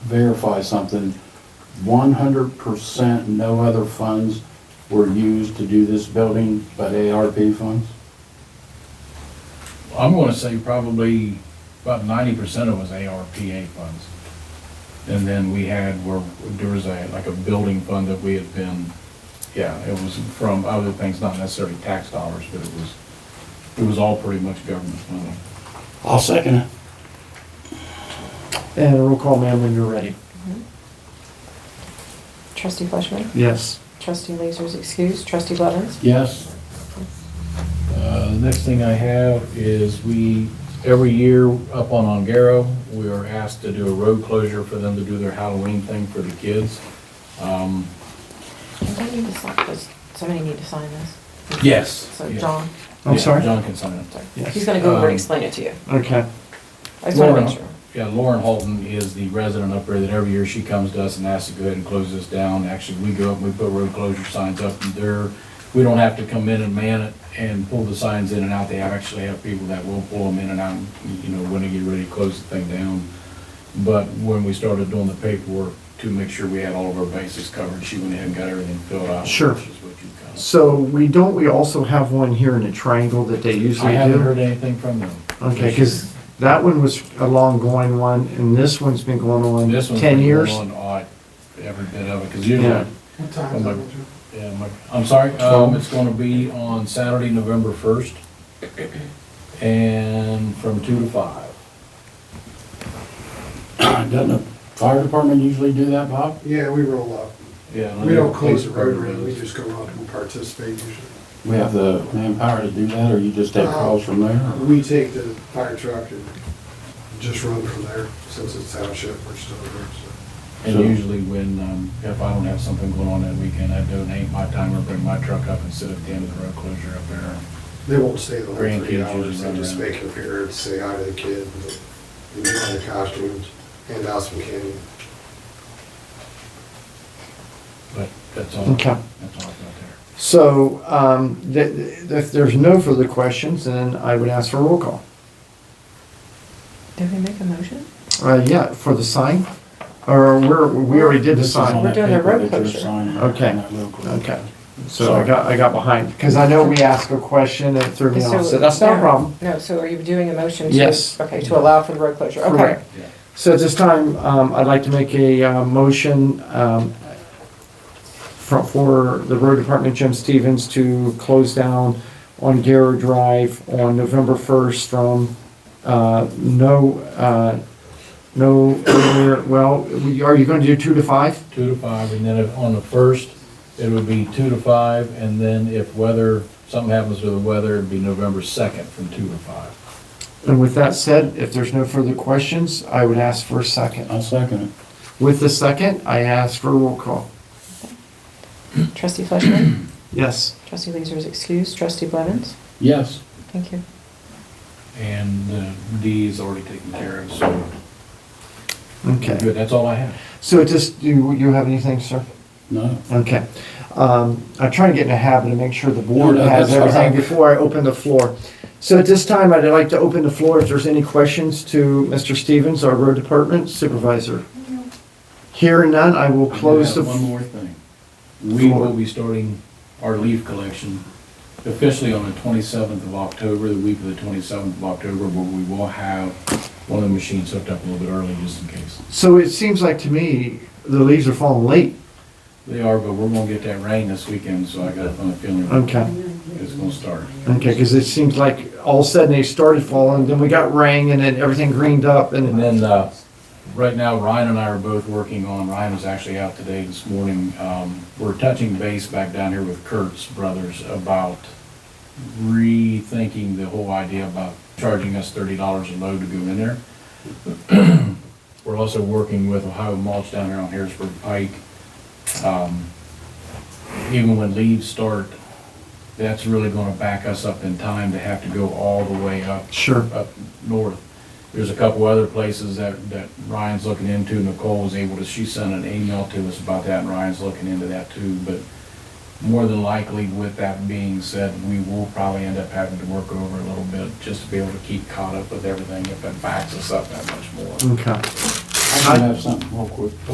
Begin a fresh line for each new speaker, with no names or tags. verify something. One hundred percent no other funds were used to do this building but ARP funds?
I'm gonna say probably about ninety percent of it was ARPA funds. And then we had, where, there was a, like a building fund that we had been, yeah, it was from other things, not necessarily tax dollars, but it was, it was all pretty much government money.
I'll second it.
And a roll call, ma'am, when you're ready.
Trustee Fleshman.
Yes.
Trustee Lasers excused. Trustee Blevins.
Yes,
Uh, The next thing I have is we, every year up on Ongaro, we are asked to do a road closure for them to do their Halloween thing for the kids. Um,
Does I need to sign this? Somebody need to sign this?
Yes.
So
Yeah.
John,
I'm
yeah,
sorry?
John can sign it.
sorry.
Yes.
he's gonna go over
Um,
and explain it to you.
Okay,
I just wanna
Lauren,
make sure.
Yeah, Lauren Holton is the resident up there that every year she comes to us and asks to go ahead and close this down. Actually, we go up and we put road closure signs up and there, we don't have to come in and man it and pull the signs in and out. They actually have people that will pull them in and out, you know, when they get ready to close the thing down. But when we started doing the paperwork to make sure we had all of our bases covered, she went ahead and got everything filled out.
Sure.
Which is what you kind of.
so we don't, we also have one here in a triangle that they
I
usually
haven't
do?
heard anything from them.
Okay, because that one was a long going one, and this one's been going
This
on
one's
ten
been
years.
going on Every bit of it, because
Yeah.
usually
What time is
Oh,
that,
my-
Andrew?
Yeah, Mike, I'm sorry, um, it's gonna be on Saturday, November first, and from two to five.
doesn't the fire department usually do that, Bob?
Yeah, we roll up.
Oh, Yeah. and
We
then
don't close the
police
road
department
around, we
does.
just go up and participate usually.
We have the manpower to do that, or you just take calls from there? or-
We take the fire truck and just run from there, since it's township, we're still there, so.
And usually when, um, if I don't have something going on that weekend, I donate my time or bring my truck up and sit at the end of the road closure up there.
They won't stay the whole
Grandkids
three
usually
hours, they
run
just
around.
make an appearance, say hi to the kid, and get on the costumes, hand out some candy.
But that's all, that's all
Okay.
I've got there.
So, um, th- th- if there's no further questions, then I would ask for a roll call.
Did we make a motion?
Uh, yeah, for the sign, or we're, we already did the
This is on
sign.
that
We're doing a
paper
road
that you're
closure.
signing,
Okay.
on that road closure.
Okay, so I got, I got behind, because I know we asked a question and it threw me off, so that's not a problem.
No, so are you doing a motion to?
Yes.
Okay, to allow for the road closure, okay.
Correct.
Yeah.
So at this time, um, I'd like to make a, uh, motion, um, for, for the road department, Jim Stevens, to close down on Garrow Drive on November first from, uh, no, uh, no, earlier- well, we- are you gonna do two to five?
Two to five, and then if, on the first, it would be two to five, and then if weather, something happens with the weather, it'd be November second from two to five.
And with that said, if there's no further questions, I would ask for a second.
I'll second it.
With the second, I ask for a roll call.
Trustee Fleshman.
Yes.
Trustee Lasers excused. Trustee Blevins.
Yes,
Thank you.
And uh, D is already taken care of, so
Okay.
good, that's all I have.
So just, do you- you have anything, sir?
no,
Okay. Um, I try and get in a habit to make sure the board
No, no,
has
that's all
everything
right.
before I open the floor. So at this time, I'd like to open the floor if there's any questions to Mr. Stevens, our road department supervisor. Hearing none, I will
I do
close the.
have One more thing. We will be starting our leaf collection officially on the twenty-seventh of October, the week of the twenty-seventh of October, but we will have one of the machines hooked up a little bit early just in case.
So it seems like to me, the leaves are falling late.
They are, but we're gonna get that rain this weekend, so I got a funny feeling
Okay.
it's gonna start.
Okay, because it seems like all of a sudden they started falling, then we got rain and then everything greened up
And
and,
then, uh, right now, Ryan and I are both working on, Ryan was actually out today this morning. Um, we're touching base back down here with Kurt's brothers about rethinking the whole idea about charging us thirty dollars a load to go in there. We're also working with Ohio Mulch down here on Harrisburg Pike. Um, even when leaves start, that's really gonna back us up in time to have to go all the way up
sure,
up north. There's a couple other places that, that Ryan's looking into, Nicole was able to, she sent an email to us about that, and Ryan's looking into that too, but more than likely, with that being said, we will probably end up having to work over a little bit, just to be able to keep caught up with everything if it backs us up that much more.
okay.
I I have something real quick.